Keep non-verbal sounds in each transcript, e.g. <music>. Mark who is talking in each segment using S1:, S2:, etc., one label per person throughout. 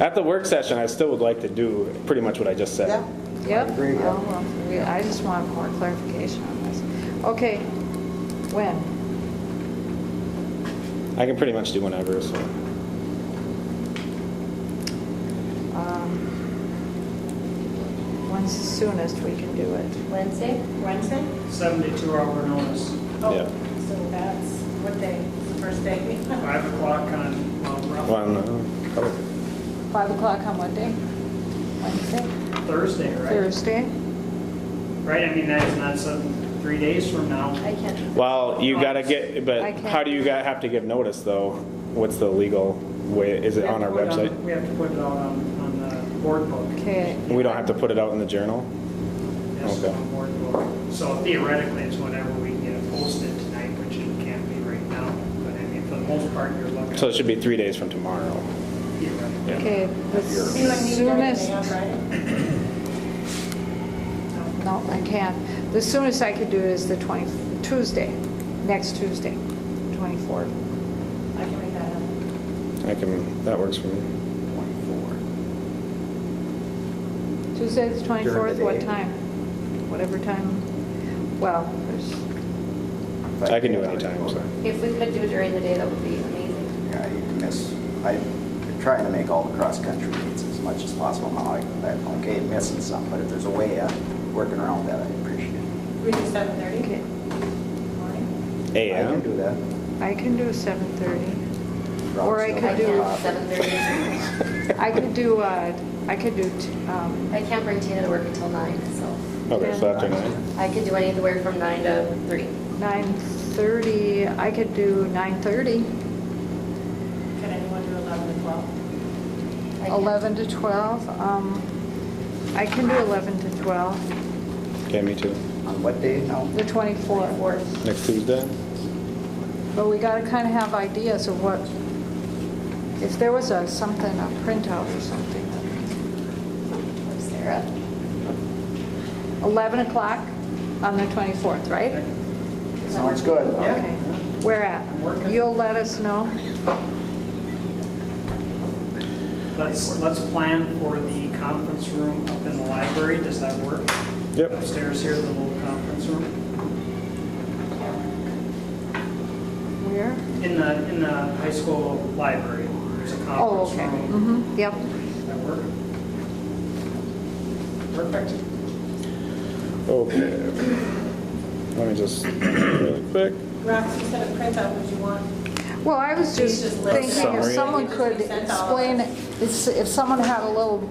S1: At the work session, I still would like to do pretty much what I just said.
S2: Yeah,
S3: Yep.
S2: agree, yeah.
S3: Oh, well, we- I just want more clarification on this. Okay, when?
S1: I can pretty much do whenever, so.
S3: When's the soonest we can do it?
S4: Wednesday? Wednesday?
S5: 72 hour notice,
S1: Yeah.
S4: Oh, So that's what day, the first day?
S5: 5 o'clock on Mount
S1: Well, I
S5: Rushmore,
S1: don't know. Probably-
S3: 5 o'clock on what day? Wednesday?
S5: Thursday, right?
S3: Thursday?
S5: Right, I mean, that's not some, three days from now.
S4: <laughs> I can't.
S1: Well, you gotta get,
S3: I
S1: but
S3: can't.
S1: how do you got- have to give notice, though? What's the legal way, is it on our
S5: We have to put it
S1: website?
S5: on- We have to put it out on, on the board book.
S3: Okay.
S1: We don't have to put it out in the journal?
S5: Yes,
S1: Okay.
S5: on board book. So theoretically, it's whenever we can get it posted tonight, which it can't be right now. But I mean, for the most part, you're looking.
S1: So it should be three days from tomorrow.
S5: theoretically.
S3: Okay, the
S4: You want me to do
S3: soonest,
S4: anything on Friday?
S3: no, I can't. The soonest I could do it is the 20, Tuesday, next Tuesday, 24th.
S4: I can make that happen.
S1: I can, that works for me.
S3: Tuesday, the 24th,
S2: the
S3: what
S2: day.
S3: time? Whatever time, well, there's,
S1: I can do any time, so.
S6: If we could do it during the day, that would be amazing.
S2: Yeah, you can miss, I'm trying to make all the cross-country meets as much as possible. Now, I- I'm okay missing some, but if there's a way of working around that, I appreciate it.
S4: We do 7:30
S3: okay,
S4: morning?
S2: I can do
S1: <laughs> AM?
S2: that.
S3: I can do 7:30. Or I
S2: Rob's
S3: could
S6: I
S2: still
S3: do-
S2: working.
S6: can't, seven thirty.
S3: I could do, uh, I could do, t- um,
S6: I can't bring Tina to work until nine, so
S1: Okay, so after nine.
S6: I could do anywhere from nine to three.
S3: 9:30, I could do 9:30,
S4: Can anyone do 11 to 12?
S6: I can't-
S3: 11 to 12, um, I can do 11 to 12,
S1: Okay, me too.
S2: On what day now?
S3: the 24th.
S1: Next Tuesday?
S3: But we gotta kind of have ideas of what, if there was a, something, a printout or something.
S6: Sarah,
S3: 11 o'clock on the 24th, right?
S2: Sounds good.
S3: Okay, where at? You'll let us know?
S5: Let's, let's plan for the conference room up in the library. Does that work?
S1: Yep.
S5: Upstairs here, the little conference room.
S3: Where?
S5: In the, in the high school library, there's a
S3: Oh,
S5: conference
S3: okay,
S5: room.
S3: mm-hmm, yep.
S5: Does that work? Perfect.
S1: Okay. Let me just, really quick.
S4: Roxy said a printout, would you want?
S3: Well, I was just
S4: Just list
S3: thinking if
S1: summary.
S3: someone could explain, it, it's- if someone had a little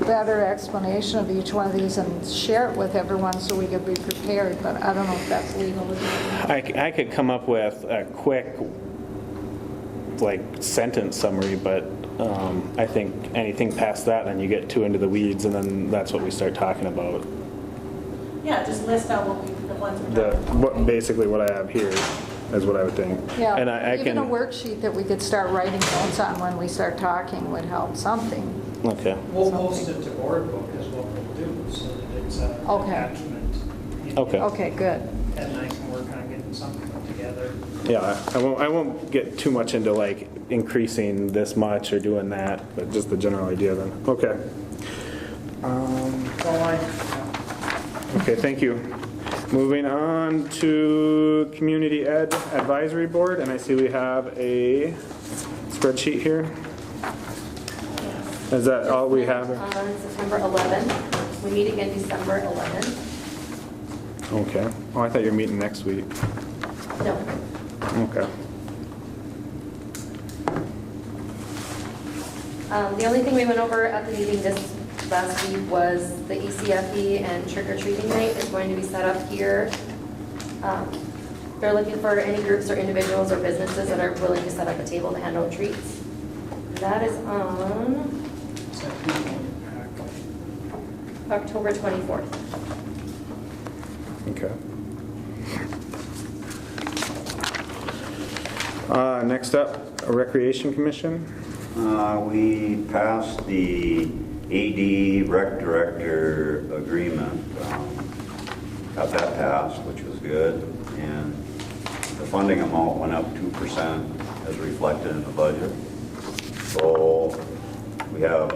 S3: better explanation of each one of these and share it with everyone so we could be prepared, but I don't know if that's legal.
S1: I, c- I could come up with a quick, like, sentence summary, but um, I think anything past that, and you get too into the weeds, and then that's what we start talking about.
S4: Yeah, just list out what we, the ones we're
S1: The,
S4: talking about.
S1: what, basically what I have here is what I would think. And I I
S3: Yeah,
S1: can.
S3: even a worksheet that we could start writing notes on when we start talking would help something.
S1: Okay,
S5: We'll post it to board book is what we'll do, so that it's uh, an
S3: Okay.
S5: attachment.
S1: Okay.
S3: Okay, good.
S5: Ed and I can work on getting something together.
S1: yeah, I won't, I won't get too much into like increasing this much or doing that, but just the general idea then, okay.
S5: Well, I, yeah.
S1: Okay, thank you. Moving on to Community Ed Advisory Board, and I see we have a spreadsheet here. Is that all we have?
S6: On September eleventh, we meet again December eleventh.
S1: Okay. Oh, I thought you were meeting next week.
S6: No,
S1: Okay.
S6: Um, The only thing we went over at the meeting this last week was the E ECFE and trick or treating night is going to be set up here. Um, They're looking for any groups or individuals or businesses that are willing to set up a table to hand out treats. That is on
S5: So people, uh,
S6: October 24th.
S1: Okay. Uh, Next up, Recreation Commission.
S7: Uh, We passed the AD rec director agreement. um, Got that passed, which was good. And the funding amount went up 2% as reflected in the budget. So we have